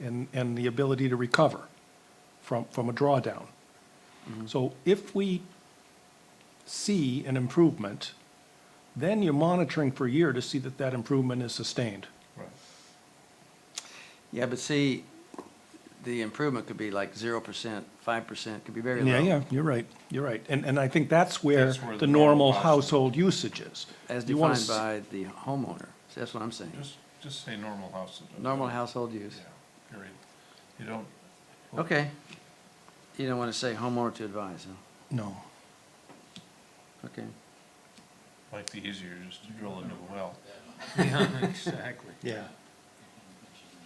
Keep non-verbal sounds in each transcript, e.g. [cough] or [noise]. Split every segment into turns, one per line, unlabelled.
and, and the ability to recover from, from a drawdown.
Mm-hmm.
So if we see an improvement, then you're monitoring for a year to see that that improvement is sustained.
Yeah, but see, the improvement could be like zero percent, five percent, could be very low.
Yeah, yeah, you're right, you're right. And, and I think that's where
That's where
the
the normal
normal
cost-
household usage is.
As
You wanna
defined
s-
by the homeowner. So That's what I'm saying.
Just, just say normal houses.
Normal household use.
Yeah, period. You don't,
Okay. You don't want to say homeowner to advise, huh?
No,
Okay.
like the easier, just to drill into a well.
Yeah.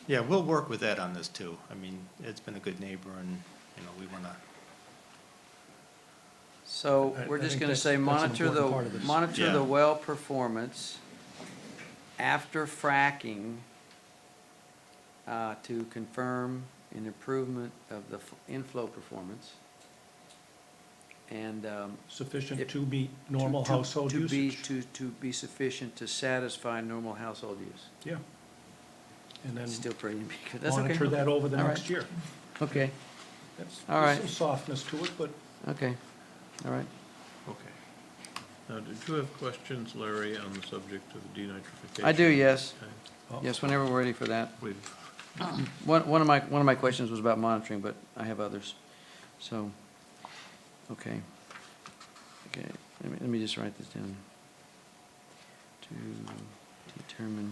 Yeah, we'll work with Ed on this too. I mean, Ed's been a good neighbor and, you know, we want to,
So
I-
we're
I
just
think
gonna
that's-
say
that's an
monitor the,
important part of this.
monitor
Yeah.
the well performance after fracking uh, to confirm an improvement of the f- inflow performance. And, um,
sufficient
If-
to meet normal
to- to-
household
to be-
usage.
To, to be sufficient to satisfy normal household use.
Yeah. And then
Still pretty [laughs] ambiguous, that's okay.
monitor that over the
All right.
next year.
Okay,
That's-
All
there's Some
right.
softness to it, but
okay, all right.
Okay. Now, did you have questions, Larry, on the subject of denitrification?
I do, yes.
Okay.
uh, Oh.
Yes, whenever we're ready for that.
We've,
One, one of my, one of my questions was about monitoring, but I have others, so, okay. Okay, let me, let me just write this down. To determine,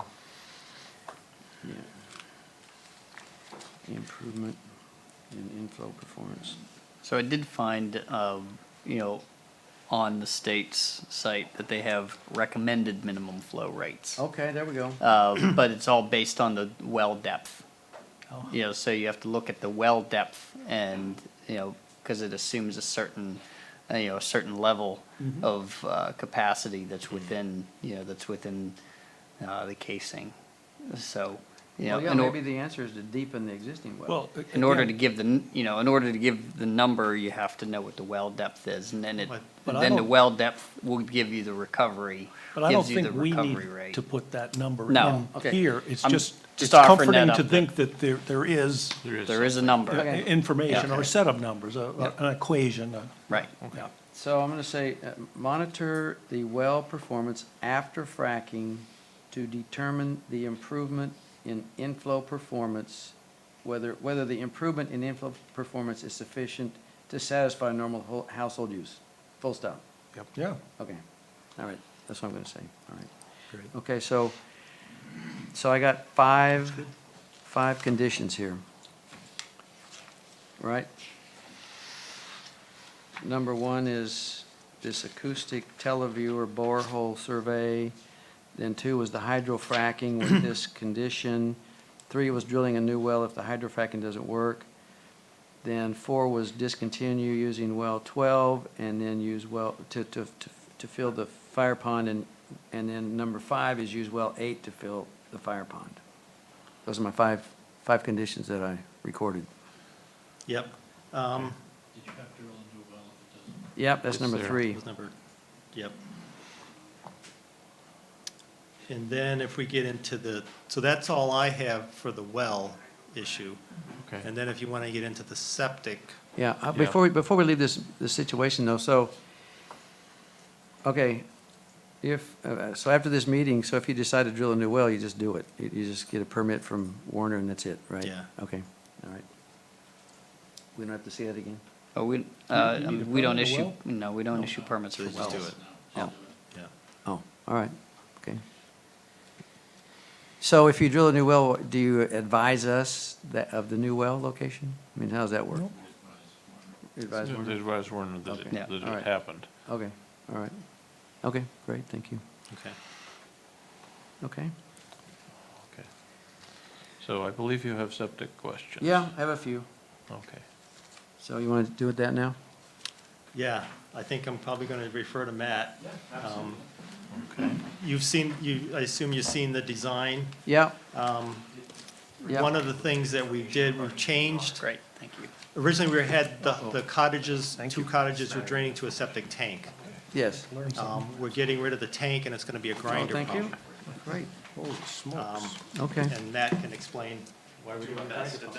yeah, the improvement in inflow performance.
So I did find, um, you know, on the state's site that they have recommended minimum flow rates.
Okay, there we go.
Uh, but it's all based on the well depth.
Oh.
You know, so you have to look at the well depth and, you know, because it assumes a certain, uh, you know, a certain level
Mm-hmm.
of uh, capacity that's within, you know, that's within uh, the casing. So, you know,
Well, yeah,
in or-
maybe the answer is to deepen the existing well.
Well,
in order to
again,
give the, n- you know, in order to give the number, you have to know what the well depth is, and then it,
But-
but I
then the
don't-
well depth will give you the recovery,
But I don't
gives you the
think we
recovery
need
rate.
to put that number
No.
in
Okay.
here. It's
I'm
just, it's
just offering
comforting
that
to
up
think that there, there is
there is.
There is a number,
Okay.
information or
Yeah.
a set of numbers, a- a- an equation. a-
right.
yeah.
So I'm gonna say, uh, monitor the well performance after fracking to determine the improvement in inflow performance, whether, whether the improvement in inflow performance is sufficient to satisfy normal ho- household use. Full stop.
Yeah.
Okay. All right, that's what I'm gonna say. All right.
Great.
Okay, so, so I got five, five conditions here. Right? Number one is this acoustic televiewer borehole survey. Then two was the hydrofracking with this condition. Three was drilling a new well if the hydrofracking doesn't work. Then four was discontinue using well twelve and then use well, to, to, to, to fill the fire pond and, and then number five is use well eight to fill the fire pond. Those are my five, five conditions that I recorded.
yep. Um,
Yep, that's
it's
number
there.
three.
It's number- yep. And then if we get into the, so that's all I have for the well issue.
Okay.
And then if you want to get into the septic,
Yeah, uh,
Yeah.
before, we before we leave this, this situation though, so, okay, if, uh, uh, so after this meeting, so if you decide to drill a new well, you just do it. You, you just get a permit from Warner and that's it, right?
Yeah.
Okay, all right. We don't have to see that again?
But we, uh,
You need a
we don't
permit for
issue,
well?
no, we don't issue permits for
so just
wells.
do it.
Oh,
Yeah.
oh, all right, okay. So if you drill a new well, do you advise us that, of the new well location? I mean, how does that work?
No.
Advise
The
Warner?
advice warning that it-
Okay.
that it
All right.
happened.
Okay, all right. Okay, great, thank you.
Okay.
Okay.
Okay. So I believe you have septic questions.
Yeah, I have a few.
Okay.
So you want to do it that now?
Yeah, I think I'm probably going to refer to Matt. Um, You've seen, you, I assume you've seen the design.
Yeah,
Um,
Yeah.
One of the things that we did, we've changed,
Great, thank you.
originally we had the the cottages, two cottages were draining to a septic tank.
yes.
Learn something.
Um, We're getting rid of the tank and it's going to be a grinder
Oh, thank you.
pump.
Great,
Holy smokes.
Um,
okay.
And Matt can explain Why are we doing that?